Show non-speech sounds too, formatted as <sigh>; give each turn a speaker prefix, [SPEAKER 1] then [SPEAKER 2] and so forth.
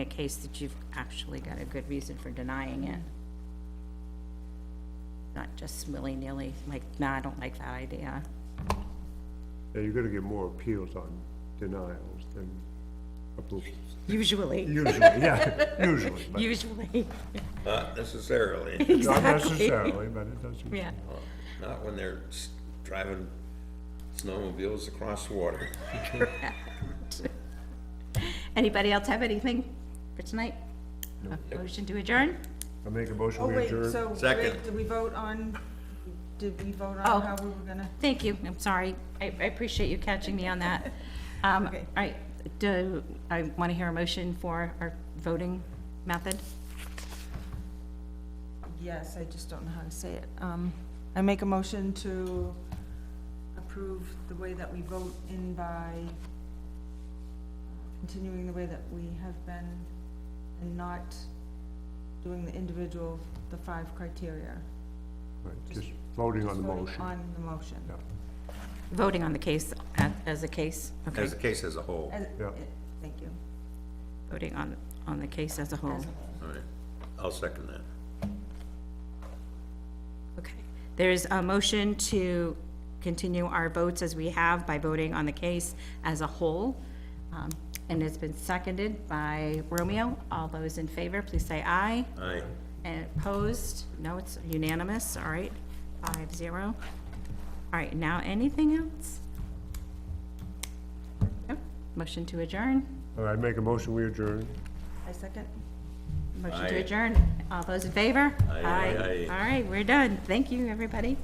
[SPEAKER 1] a case that you've actually got a good reason for denying it. Not just willy-nilly, like, no, I don't like that idea.
[SPEAKER 2] Yeah, you're gonna get more appeals on denials than approvals.
[SPEAKER 1] Usually,
[SPEAKER 2] Usually, yeah, usually, but
[SPEAKER 1] usually, <laughs>
[SPEAKER 3] Not
[SPEAKER 4] <laughs>
[SPEAKER 3] necessarily,
[SPEAKER 2] <laughs>
[SPEAKER 3] Uh,
[SPEAKER 2] not
[SPEAKER 1] exactly,
[SPEAKER 2] necessarily, but it doesn't.
[SPEAKER 1] yeah.
[SPEAKER 3] not when they're s- driving snowmobiles across water.
[SPEAKER 1] Anybody else have anything for tonight? A Motion to adjourn?
[SPEAKER 2] I make a motion,
[SPEAKER 4] Oh,
[SPEAKER 2] we
[SPEAKER 4] wait,
[SPEAKER 2] adjourn.
[SPEAKER 4] so,
[SPEAKER 3] Second.
[SPEAKER 4] wait, did we vote on, did we vote
[SPEAKER 1] Oh.
[SPEAKER 4] on how we were gonna?
[SPEAKER 1] Thank you, I'm sorry. I, I appreciate you catching me on that. Um, all
[SPEAKER 4] Okay.
[SPEAKER 1] right, do, I want to hear a motion for our voting method.
[SPEAKER 4] Yes, I just don't know how to say it. Um, I make a motion to approve the way that we vote in by continuing the way that we have been and not doing the individual, the five criteria.
[SPEAKER 2] Right, Just voting on the
[SPEAKER 4] Just voting
[SPEAKER 2] motion.
[SPEAKER 4] On the motion.
[SPEAKER 2] Yeah.
[SPEAKER 1] Voting on the case, a- as a case, okay,
[SPEAKER 3] As the case as a whole,
[SPEAKER 4] As-
[SPEAKER 2] Yeah.
[SPEAKER 4] eh, Thank you.
[SPEAKER 1] voting on, on the case as a whole.
[SPEAKER 3] all right, I'll second that.
[SPEAKER 1] Okay, there's a motion to continue our votes as we have by voting on the case as a whole. Um, And it's been seconded by Romeo. All those in favor, please say aye.
[SPEAKER 3] Aye.
[SPEAKER 1] And opposed? No, it's unanimous, all right, five zero. All right, now anything else? No? Motion to adjourn,
[SPEAKER 2] All right, make a motion, we adjourn.
[SPEAKER 4] I second.
[SPEAKER 1] motion to
[SPEAKER 3] Aye.
[SPEAKER 1] adjourn. All those in favor?
[SPEAKER 3] Aye, aye, aye.
[SPEAKER 1] All right, we're done. Thank you, everybody.